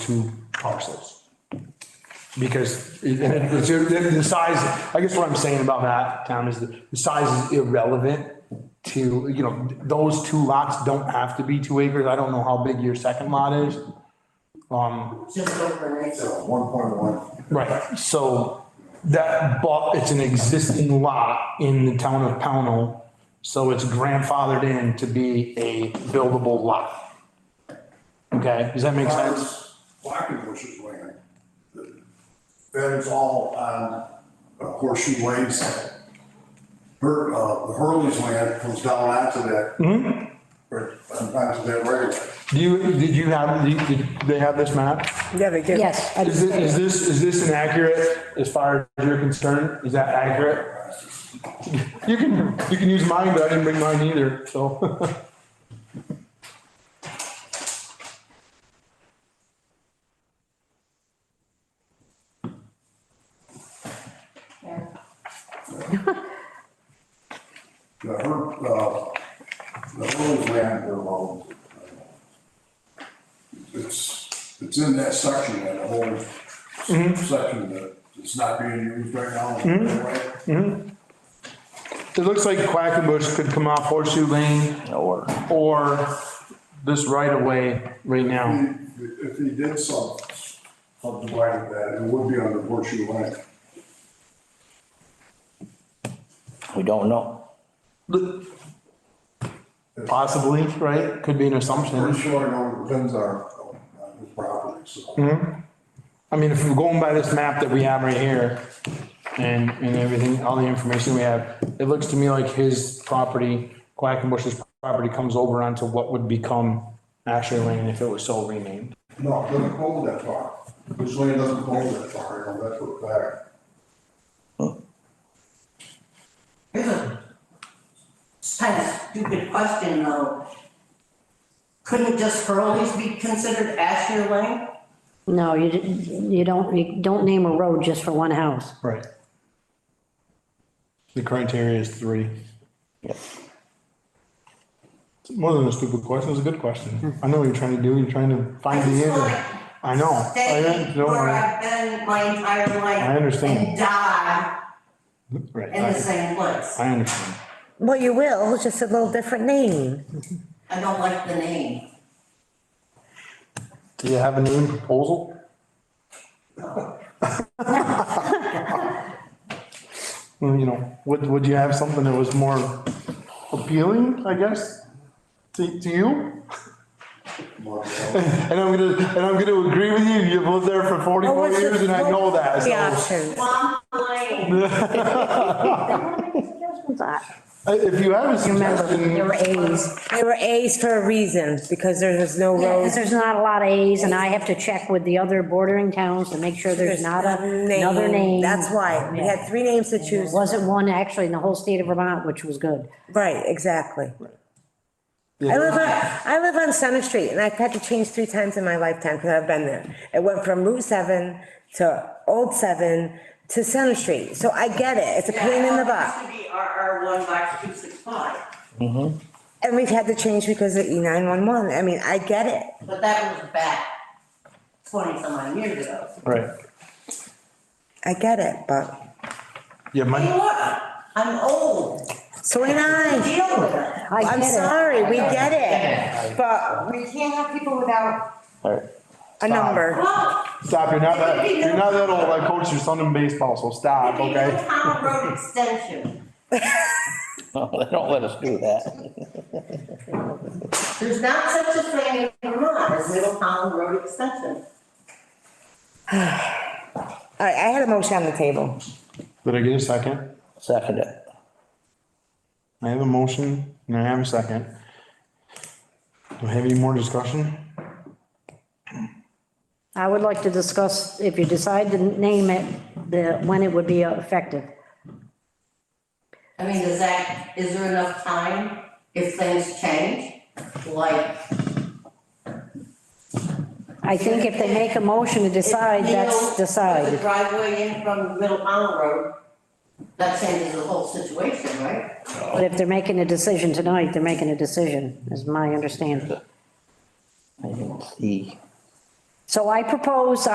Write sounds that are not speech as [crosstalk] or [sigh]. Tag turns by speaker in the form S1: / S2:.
S1: two parcels. Because it- and it's- it- the size, I guess what I'm saying about that, Tom, is that the size is irrelevant to, you know, those two lots don't have to be two acres. I don't know how big your second lot is. Um,
S2: Just over an acre.
S3: One point one.
S1: right, so that, but it's an existing lot in the town of Pownell, so it's grandfathered in to be a buildable lot. Okay, does that make sense?
S3: Blackened Bush's land. That is all on uh, Horseshoe Lane side. Her, uh, the Hurley's land comes down onto that. Or onto that right of
S1: Do
S3: way.
S1: you, did you have, did you- did they have this map?
S4: Yeah, they did.
S5: Yes. I
S1: Is
S5: just-
S1: this, is this, is this inaccurate as far as you're concerned? Is that accurate? You can, you can use mine, but I didn't bring mine either, so. [laughs]
S3: The Her, uh, the Hurley's land, they're all. It's, it's in that section, that whole section that is not being used right now. Right?
S1: It looks like Quackenbush could come off Horseshoe Lane
S6: Or,
S1: or this right of way right now.
S3: If if he did some, subdivide that, it would be on the horseshoe line.
S6: we don't know.
S1: Possibly, right? Could be an
S3: Pretty
S1: assumption.
S3: sure I know where the pins are on his property, so.
S1: I mean, if we're going by this map that we have right here and, and everything, all the information we have, it looks to me like his property, Quackenbush's property comes over onto what would become Ashley Lane if it was so renamed.
S3: No, it doesn't go that far. His land doesn't go that far, you know, that's what that.
S2: It's kind of stupid question though. Couldn't just Hurley's be considered Asher Lane?
S5: No, you, didn't- you don't, you don't name a road just for one house.
S1: Right. The criteria is three.
S6: Yep.
S1: It's More than a stupid question, it's a good question. I know what you're trying to do, you're trying to find the answer. I know. I
S2: Stay
S1: don't
S2: where
S1: know.
S2: I've been my entire life.
S1: I understand.
S2: And die
S1: Right,
S2: in the
S1: I-
S2: same place.
S1: I understand.
S4: Well, you will, it's just a little different name.
S2: I don't like the name.
S1: Do you have a name proposal? [laughs] Well, You know, would, would you have something that was more appealing, I guess, to, to you?
S3: Well,
S1: And I'm gonna, and I'm gonna agree with you, you've lived there for
S4: What
S1: forty-four
S4: was the-
S1: years and I know
S4: what
S1: that,
S4: was The
S1: so.
S4: options.
S2: Swamp Lane.
S1: Uh, If you have a
S5: Remember, there were
S1: suggestion,
S5: As.
S4: They were As for a reason, because there was no roads.
S5: Because there's not a lot of As, and I have to check with the other bordering towns to make sure there's not a- another name.
S4: That's why, we had three names to
S5: There
S4: choose.
S5: wasn't one actually in the whole state of Vermont, which was good.
S4: Right, exactly. I live
S1: Yeah,
S4: on, I live on Center Street, and I've had to change three times in my lifetime, because I've been there. It went from Route 7 to Old 7 to Center Street, so I get it, it's a pain in the butt.
S2: It used to be RR one box two six five,
S4: And we've had to change because of E E911, I mean, I get it.
S2: but that was back twenty some odd years ago.
S1: right,
S4: I get it, but,
S1: yeah,
S2: You know
S1: my,
S2: what? I'm old.
S4: so am
S2: I
S4: I.
S2: deal with it.
S5: I
S4: I'm
S5: get it.
S4: sorry, we get it, but
S2: We can't have people without,
S6: All right. [laughs]
S4: a number.
S2: well,
S1: stop, you're not that, you're not that old, I coached your son in baseball, so stop,
S2: maybe a
S1: okay?
S2: town road extension.
S6: No, they don't let us do that.
S2: There's not such a thing in Vermont as Middletown Road Extension.
S4: All right, I had a motion on the table.
S1: Did I get a second?
S6: Second it.
S1: I have a motion and I have a second. Do we have any more discussion?
S5: I would like to discuss, if you decide to name it, the, when it would be effective.
S2: I mean, is that, is there enough time if things change? Like,
S5: I think if they make a motion to decide, that's
S2: The
S5: decided.
S2: driveway in from Middletown Road, that changes the whole situation, right?
S5: But if they're making a decision tonight, they're making a decision, is my understanding.
S6: I didn't see.
S5: So I propose